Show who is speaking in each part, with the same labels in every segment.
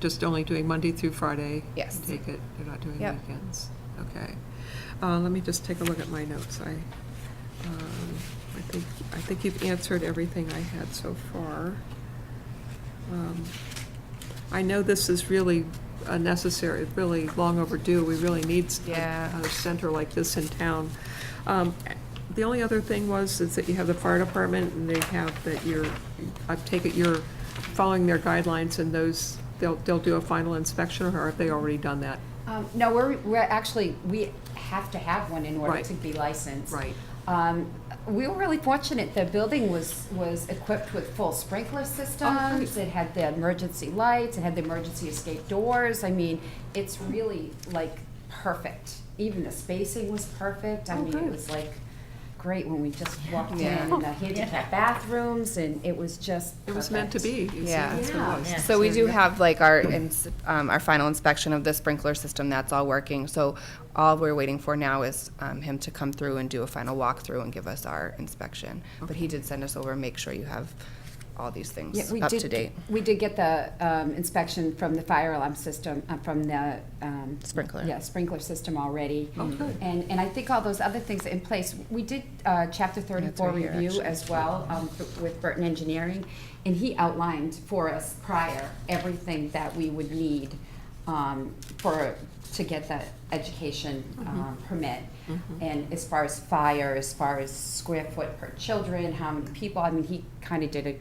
Speaker 1: just only doing Monday through Friday?
Speaker 2: Yes.
Speaker 1: I Take it, they're not doing
Speaker 2: Yep.
Speaker 1: weekends? Okay. Uh, Let me just take a look at my notes. I, um, I think, I think you've answered everything I had so far. Um, I know this is really unnecessary, really long overdue. We really need s- a-
Speaker 2: Yeah.
Speaker 1: a center like this in town. Um, The only other thing was is that you have the fire department and they have that you're, I take it you're following their guidelines and those, they'll, they'll do a final inspection or have they already done that?
Speaker 2: Um, no, we're, we're actually, we have to have one in order
Speaker 1: Right.
Speaker 2: to be licensed.
Speaker 1: Right.
Speaker 2: Um, we were really fortunate, the building was, was equipped with full
Speaker 1: Oh,
Speaker 2: sprinkler systems. It had the emergency lights, it had the emergency escape doors, I mean, it's really like perfect. Even the spacing was perfect, I
Speaker 1: Oh,
Speaker 2: mean, it
Speaker 1: good.
Speaker 2: was like great when we just walked in,
Speaker 3: Yeah.
Speaker 2: and the handicap bathrooms, and it was just
Speaker 1: It was meant to
Speaker 2: perfect.
Speaker 1: be. It's-
Speaker 3: Yeah.
Speaker 1: that's what it was.
Speaker 3: Yeah. So we do have like our, ins- um, our final inspection of the sprinkler system, that's all working. So all we're waiting for now is um, him to come through and do a final walkthrough and give us our inspection. But he did send us over, make sure you have all these
Speaker 2: Yeah,
Speaker 3: things
Speaker 2: we
Speaker 3: up
Speaker 2: did-
Speaker 3: to date.
Speaker 2: We did get the um, inspection from the fire alarm system, uh, from the. um,
Speaker 3: Sprinkler. Oh,
Speaker 2: Yeah, sprinkler system already.
Speaker 1: Okay.
Speaker 2: And, and I think all those other things are in place. We did uh, chapter thirty-four
Speaker 3: right here,
Speaker 2: review
Speaker 3: actually.
Speaker 2: as well um, with Burton Engineering, and he outlined for us prior everything that we would need um, for, to get that education
Speaker 3: Mm-hmm.
Speaker 2: um, permit. And as far as fire, as far as square foot per children, how many people, I mean, he kind of did a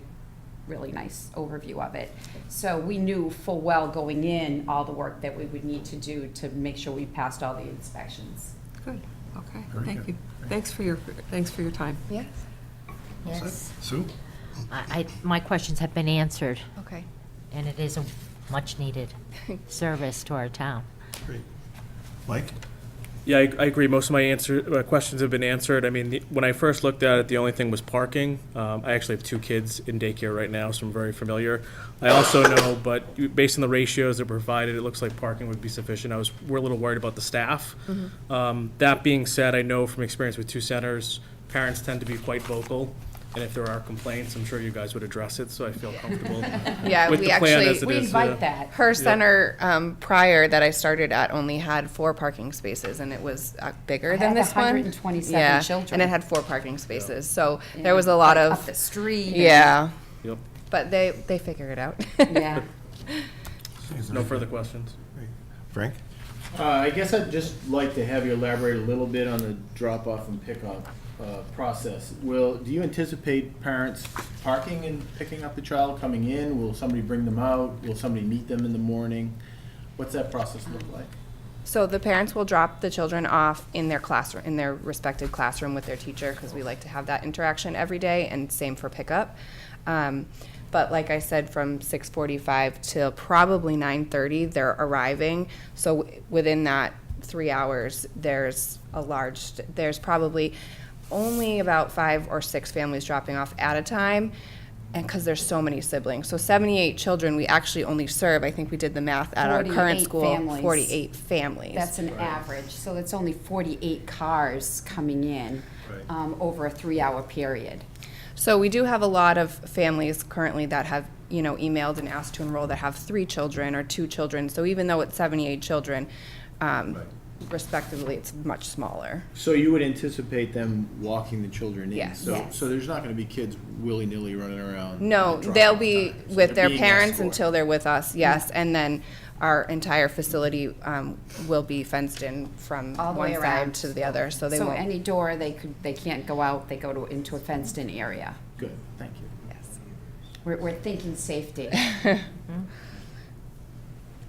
Speaker 2: really nice overview of it. So we knew full well going in all the work that we would need to do to make sure we passed all the inspections.
Speaker 1: Good, okay,
Speaker 4: Very
Speaker 1: thank
Speaker 4: good.
Speaker 1: you. Thanks for your, thanks for your time.
Speaker 3: Yes,
Speaker 5: Yes,
Speaker 4: Sue?
Speaker 5: I, I- my questions have been answered,
Speaker 3: okay.
Speaker 5: and it is a much-needed service to our town.
Speaker 4: Great. Mike?
Speaker 6: Yeah, I, I agree. Most of my answer, uh, questions have been answered. I mean, the, when I first looked at it, the only thing was parking. Um, I actually have two kids in daycare right now, so I'm very familiar. I also know, but you- based on the ratios that were provided, it looks like parking would be sufficient. I was, we're a little worried about the staff. Um, that being said, I know from experience with two centers, parents tend to be quite vocal. And if there are complaints, I'm sure you guys would address it, so I feel comfortable
Speaker 3: Yeah,
Speaker 6: with
Speaker 3: we
Speaker 6: the plan
Speaker 3: actually-
Speaker 6: as it
Speaker 2: We
Speaker 6: is, yeah.
Speaker 2: invite that.
Speaker 3: Her center um, prior that I started at only had four parking spaces, and it was uh, bigger
Speaker 2: It
Speaker 3: than
Speaker 2: had
Speaker 3: this one.
Speaker 2: 127
Speaker 3: Yeah,
Speaker 2: children.
Speaker 3: And it had four parking spaces, so there was a lot
Speaker 2: Like,
Speaker 3: of,
Speaker 2: Up the street. and-
Speaker 3: yeah,
Speaker 6: Yep,
Speaker 3: but they, they figure it out.
Speaker 2: Yeah.
Speaker 6: no further questions.
Speaker 4: Frank?
Speaker 7: Uh, I guess I'd just like to have you elaborate a little bit on the drop-off and pickup uh, process. Will, do you anticipate parents parking and picking up the child coming in? Will somebody bring them out? Will somebody meet them in the morning? What's that process look
Speaker 3: Um,
Speaker 7: like?
Speaker 3: So the parents will drop the children off in their classroom, in their respective classroom with their teacher, because we like to have that interaction every day, and same for pickup. Um, but like I said, from six forty-five till probably nine thirty, they're arriving. So w- within that three hours, there's a large, there's probably only about five or six families dropping off at a time and because there's so many siblings so 78 children we actually only serve i think we did the math at our current
Speaker 2: 48
Speaker 3: school
Speaker 2: families.
Speaker 3: 48 families
Speaker 2: That's an average, so it's only forty-eight cars coming in
Speaker 4: Right.
Speaker 2: um, over a three-hour period.
Speaker 3: so we do have a lot of families currently that have you know emailed and asked to enroll that have three children or two children so even though it's 78 children um,
Speaker 4: Right.
Speaker 3: respectively it's much smaller
Speaker 7: So you would anticipate them walking the children in?
Speaker 3: Yes.
Speaker 7: So,
Speaker 2: Yes.
Speaker 7: so there's not going to be kids willy-nilly running around?
Speaker 3: No,
Speaker 7: at the
Speaker 3: they'll
Speaker 7: drop-off
Speaker 3: be
Speaker 7: time.
Speaker 3: with
Speaker 7: So they're
Speaker 3: their
Speaker 7: being
Speaker 3: parents
Speaker 7: escorted.
Speaker 3: until they're with us, yes, and then our entire facility um, will be fenced in from
Speaker 2: All the way
Speaker 3: one
Speaker 2: around.
Speaker 3: side to the other, so they
Speaker 2: So
Speaker 3: won't.
Speaker 2: any door, they could, they can't go out, they go to, into a fenced-in area.
Speaker 7: Good, thank you.
Speaker 3: Yes.
Speaker 2: We're, we're thinking safety.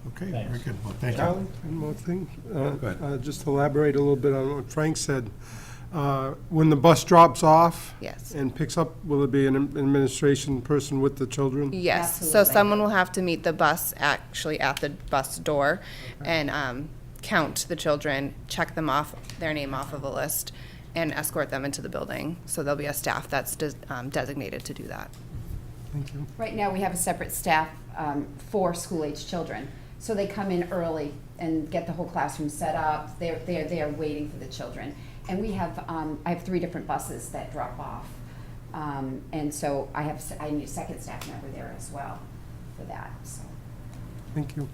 Speaker 4: Okay, very good. Well, thank
Speaker 8: Charlie,
Speaker 4: you.
Speaker 8: Uh, one more thing.
Speaker 4: Go ahead.
Speaker 8: Uh, uh, Just elaborate a little bit on what Frank said. Uh, When the bus drops off.
Speaker 3: Yes.
Speaker 8: And picks up, will it be an am- administration person with the children?
Speaker 3: Yes, so
Speaker 2: Absolutely.
Speaker 3: someone will have to meet the bus, actually at the bus door, and um, count the children, check them off, their name off of a list, and escort them into the building. So there'll be a staff that's des- um, designated to do that.
Speaker 8: Thank you.
Speaker 2: Right now, we have a separate staff um, for school-age children. So they come in early and get the whole classroom set up. They're, they're, they're waiting for the children. And we have, um, I have three different buses that drop off. Um, And so I have, s- I need a second staff member there as well for that, so.
Speaker 8: Thank you.